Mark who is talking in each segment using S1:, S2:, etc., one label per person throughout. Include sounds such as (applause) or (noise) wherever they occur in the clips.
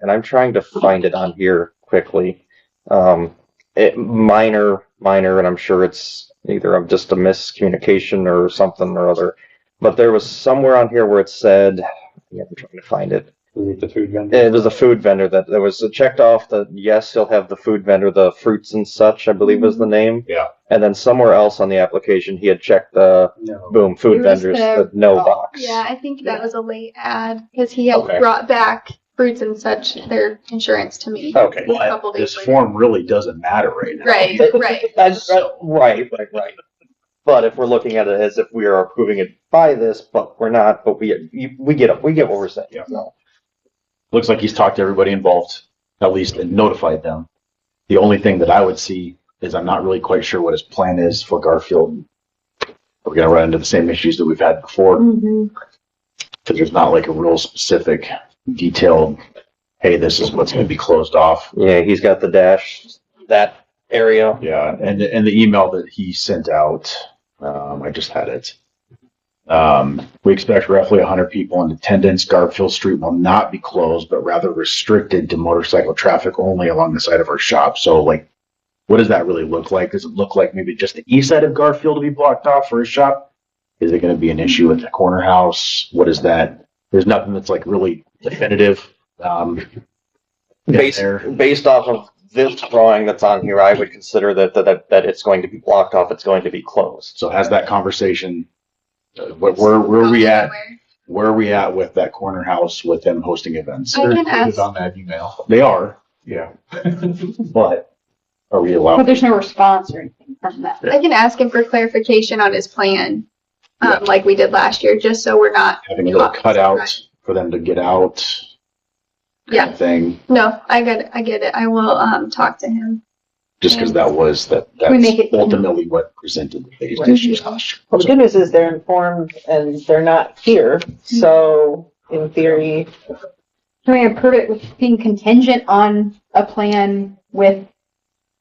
S1: and I'm trying to find it on here quickly. Um, it, minor, minor, and I'm sure it's either of just a miscommunication or something or other. But there was somewhere on here where it said, yeah, I'm trying to find it.
S2: Remove the food vendor.
S1: It was a food vendor that there was checked off that yes, he'll have the food vendor, the fruits and such, I believe was the name.
S2: Yeah.
S1: And then somewhere else on the application, he had checked the
S2: No.
S1: boom food
S3: It was
S1: vendors, the
S3: the- oh,
S1: no box.
S3: Yeah, I think that was a late ad because he had
S2: Okay.
S3: brought back fruits and such their insurance to
S4: Oh.
S3: me.
S1: Okay.
S3: A couple
S4: But
S3: days
S4: this
S3: later.
S4: form really doesn't matter right now.
S3: Right, (laughs) right.
S1: (laughs) That's right, right, right, right. But if we're looking at it as if we are approving it by this, but we're not, but we, you- we get, it. we get what we're saying.
S2: Yeah.
S1: No.
S4: Looks like he's talked to everybody involved, at least and notified them. The only thing that I would see is I'm not really quite sure what his plan is for Garfield. We're gonna run into the same issues that we've had before. Cause there's not like a real specific detailed, hey, this is what's gonna be closed off.
S1: Yeah, he's got the dash, that area.
S4: Yeah, and and the email that he sent out, um, I just had it. Um, we expect roughly 100 people in attendance. Garfield Street will not be closed, but rather restricted to motorcycle traffic only along the side of our shop. So, like, what does that really look like? Does it look like maybe just the east side of Garfield to be blocked off for his shop? Is it going to be an issue with the corner house? What is that? There's nothing that's like really definitive. Um, in
S1: Based,
S4: there.
S1: based off of this drawing that's on here, I would consider that, that, that it's going to be blocked off, it's going to be closed.
S4: So has that conversation, uh, where, where where are we at? Where are we at with that corner house with them hosting events?
S3: I
S2: They're
S3: can
S2: included
S3: ask-
S2: On that email.
S4: They are,
S2: Yeah.
S4: but are we
S5: But
S4: allowed?
S5: there's no response or anything from that.
S3: I can ask him for clarification on his plan,
S4: Yeah.
S3: um, like we did last year, just so we're not,
S4: Having little cutouts for them to get out? kind of Thing,
S3: no, I get, I get it. I will, um, talk to him.
S4: just because that was, that,
S5: We make
S4: that's
S5: it-
S4: ultimately what presented the biggest
S6: Right.
S4: issues last year.
S6: Well, the good news is they're informed and they're not here, so in theory,
S5: Can we approve it with being contingent on a plan with,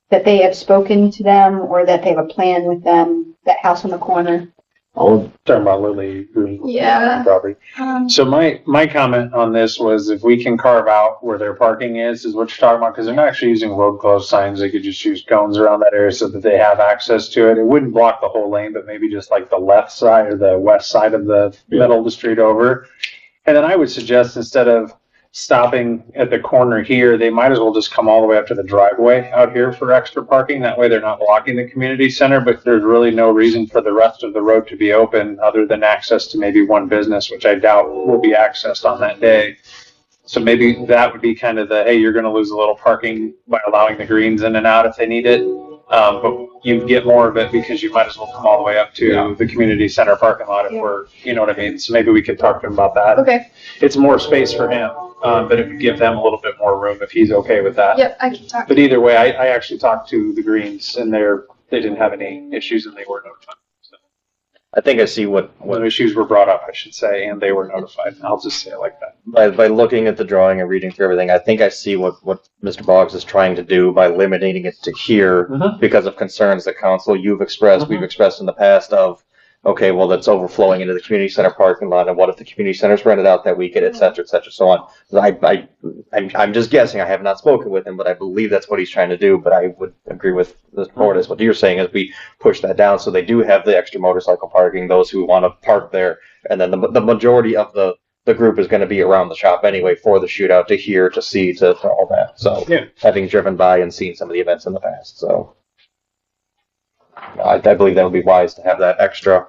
S5: that they have spoken to them or that they have a plan with them, that house on the corner?
S4: All of
S2: Talking about Lily Green.
S3: Yeah.
S2: Property.
S3: Um,
S2: So my, my comment on this was if we can carve out where their parking is, is what you're talking about, because they're not actually using road closed signs. They could just use cones around that area so that they have access to it. It wouldn't block the whole lane, but maybe just like the left side or the west side of the
S4: Yeah.
S2: middle of the street over. And then I would suggest instead of stopping at the corner here, they might as well just come all the way up to the driveway out here for extra parking. That way they're not blocking the community center, but there's really no reason for the rest of the road to be open other than access to maybe one business, which I doubt will be accessed on that day. So maybe that would be kind of the, hey, you're gonna lose a little parking by allowing the greens in and out if they need it. Um, but you get more of it because you might as well come all the way up
S4: Yeah.
S2: to the community center parking lot if
S5: Yeah.
S2: we're, you know what I mean? So maybe we could talk to him about that
S3: Okay,
S2: it's more space for him, um, but it would give them a little bit more room if he's okay with that.
S3: yep, I can talk.
S2: But either way, I, I actually talked to the Greens and they're, they didn't have any issues and they were notified.
S1: I think I see what, what
S2: When issues were brought up, I should say, and they were notified. I'll just say it like that.
S1: by, by looking at the drawing and reading through everything, I think I see what, what Mr. Boggs is trying to do by limiting it to here
S4: Mm-hmm.
S2: Mhm.
S1: because of concerns that council you've expressed, we've expressed in the past of, okay, well, that's overflowing into the community center parking lot, and what if the community center's rented out that weekend, et cetera, et cetera, so on. I, I, I'm, I'm just guessing, I have not spoken with him, but I believe that's what he's trying to do, but I would agree with Mr. Portis, what you're saying is we push that down, so they do have the extra motorcycle parking, those who want to park there, and then the, the majority of the, the group is going to be around the shop anyway for the shootout to hear, to see, to, to all that. So
S2: Yeah.
S1: having driven by and seen some of the events in the past, so I, I believe that would be wise to have that extra.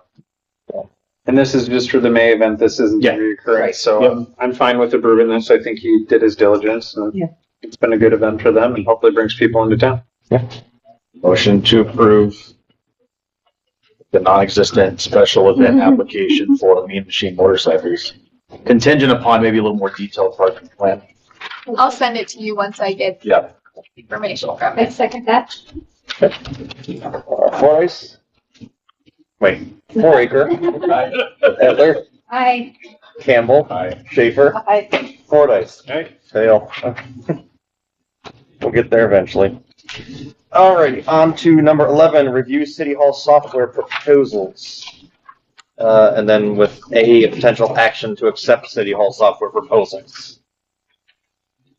S2: And this is just for the May event. This isn't
S4: Yeah.
S2: reoccurring. So
S4: Yep.
S2: I'm- I'm fine with approving this. I think he did his diligence and
S6: Yeah.
S2: it's been a good event for them and hopefully brings people into town.
S4: Motion to approve the non-existent special event application for Mean Machine motorcycles contingent upon maybe a little more detailed parking plan.
S3: I'll send it to you once I get
S4: Yeah.
S3: information from
S5: I
S3: it.
S5: second that.
S1: Four ice? Wait, four acre, Edler,
S5: I,
S1: Campbell,
S4: Aye.
S1: Schaefer,
S5: I,
S1: Fordice.
S2: Right.
S1: Fail. We'll get there eventually. Alrighty, on to number eleven, review city hall software proposals. Uh, and then with A, a potential action to accept city hall software proposals.